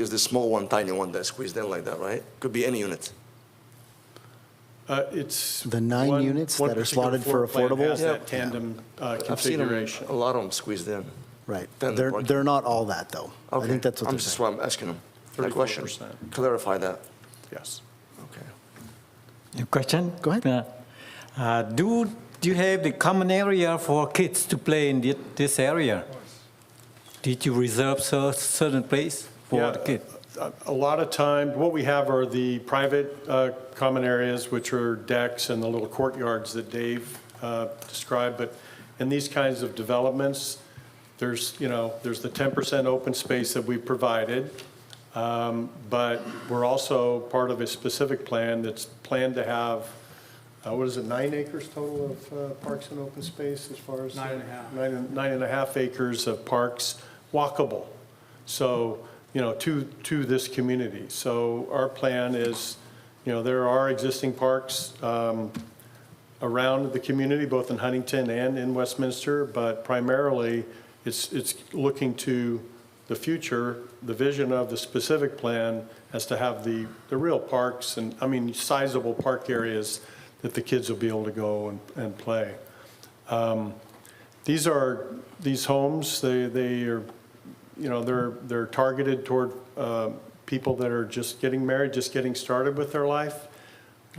Is the small one, tiny one that's squeezed in like that, right? Could be any unit. Uh, It's. The nine one- units one that are particular slotted floor for plan affordable? has Yeah. that tandem uh, I've seen 'em- configuration. a lot of them squeezed in. Right. Then They're, working. they're not all that, though. I Okay. think that's what I'm they're just saying. why I'm asking them. That question. 34%. Clarify that. Yes. Okay. Your question? Go ahead. Yeah. Uh, Do, do you have the common area for kids to play in thi- this area? Did you reserve cer- certain place for Yeah, the kids? A a lot of time, what we have are the private uh, common areas, which are decks and the little courtyards that Dave uh, described, but in these kinds of developments, there's, you know, there's the 10% open space that we provided, um, but we're also part of a specific plan that's planned to have, uh, what is it, nine acres total of uh, parks and open space as far as? Nine and a half. Nine and a half acres of parks walkable. So, you know, to, to this community. So our plan is, you know, there are existing parks um, around the community, both in Huntington and in Westminster, but primarily, it's, it's looking to the future, the vision of the specific plan as to have the, the real parks and, I mean, sizable park areas that the kids will be able to go and, and play. Um, These are, these homes, they, they are you know, they're, they're targeted toward uh, people that are just getting married, just getting started with their life.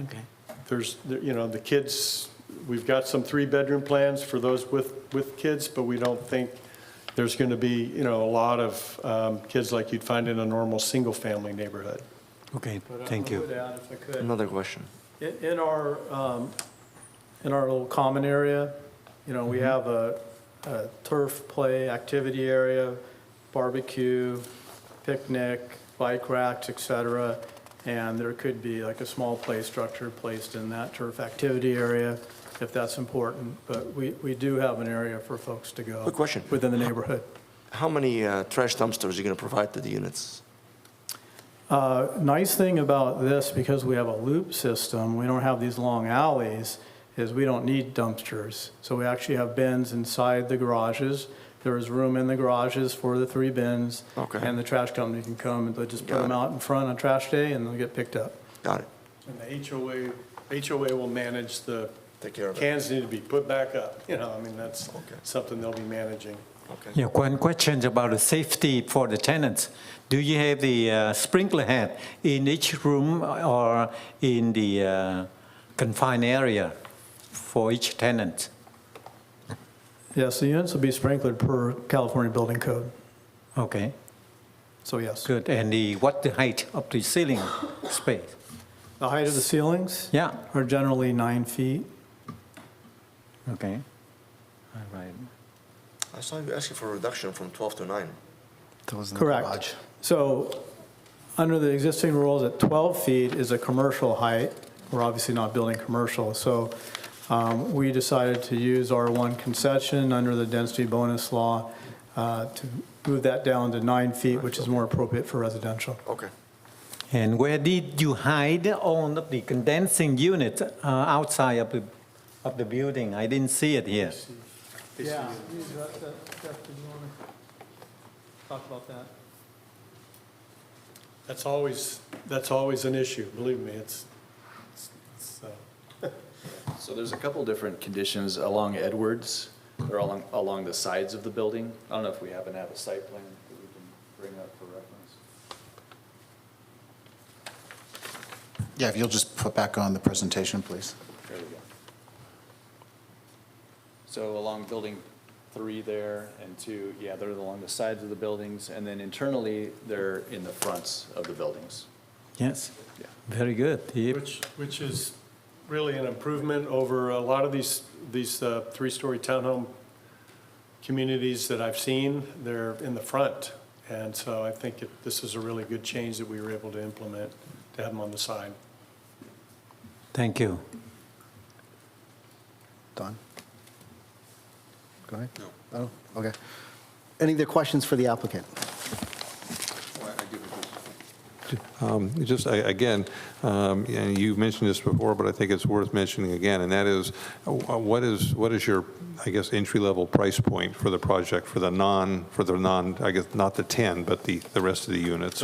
Okay. There's, you know, the kids, we've got some three-bedroom plans for those with, with kids, but we don't think there's going to be, you know, a lot of um, kids like you'd find in a normal single-family neighborhood. Okay, uh, But I- thank I you. would add, if I could, Another question. in- in our, um, in our little common area, you know, we have a a turf play activity area, barbecue, picnic, bike racks, et cetera, and there could be like a small play structure placed in that turf activity area if that's important, but we, we do have an area for folks to go. Good question. Within the neighborhood. How many uh, trash dumpsters are you going to provide to the units? Uh, Nice thing about this, because we have a loop system, we don't have these long alleys, is we don't need dumpsters. So we actually have bins inside the garages. There is room in the garages for the three bins. Okay. And the trash company can come and they'll just put Got them it. out in front on trash day and they'll get picked up. Got it. And the HOA, HOA will manage the, Take care of it. cans need to be put back up, you know, I mean, that's something they'll be managing. Okay. Yeah, one question about the safety for the tenants. Do you have the uh, sprinkler head in each room or in the uh, confined area for each tenant? Yes, the units will be sprinkled per California Building Code. Okay, So yes. good. And the, what the height of the ceiling space? The height of the ceilings Yeah. are generally nine feet. Okay. All right. I saw you asking for a reduction from 12 to 9. That was in the garage. Correct. So, under the existing rules, at 12 feet is a commercial height. We're obviously not building commercial, so um, we decided to use R1 concession under the density bonus law uh, to move that down to nine feet, which is more appropriate for residential. Okay. And where did you hide on the condensing unit uh, outside of the, of the building? I didn't see it here. Yeah. Jeff, did you want to talk about that? That's always, that's always an issue, believe me, it's, it's- it's, uh, So there's a couple different conditions along Edwards, they're along, along the sides of the building. I don't know if we happen to have a site plan that we can bring up for reference. Yeah, if you'll just put back on the presentation, please. There we go. So along building three there and two, yeah, they're along the sides of the buildings, and then internally, they're in the fronts of the buildings. Yes, Yeah. very good. Yep. Which, which is really an improvement over a lot of these, these uh, three-story townhome communities that I've seen. They're in the front. And so I think it- this is a really good change that we were able to implement, to have them on the side. Thank you. Don? Go ahead. No. Oh, okay. Any other questions for the applicant? Um, Just, a- again, um, and you mentioned this before, but I think it's worth mentioning again, and that is, uh, what is, what is your, I guess, entry-level price point for the project, for the non, for the non, I guess, not the 10, but the, the rest of the units?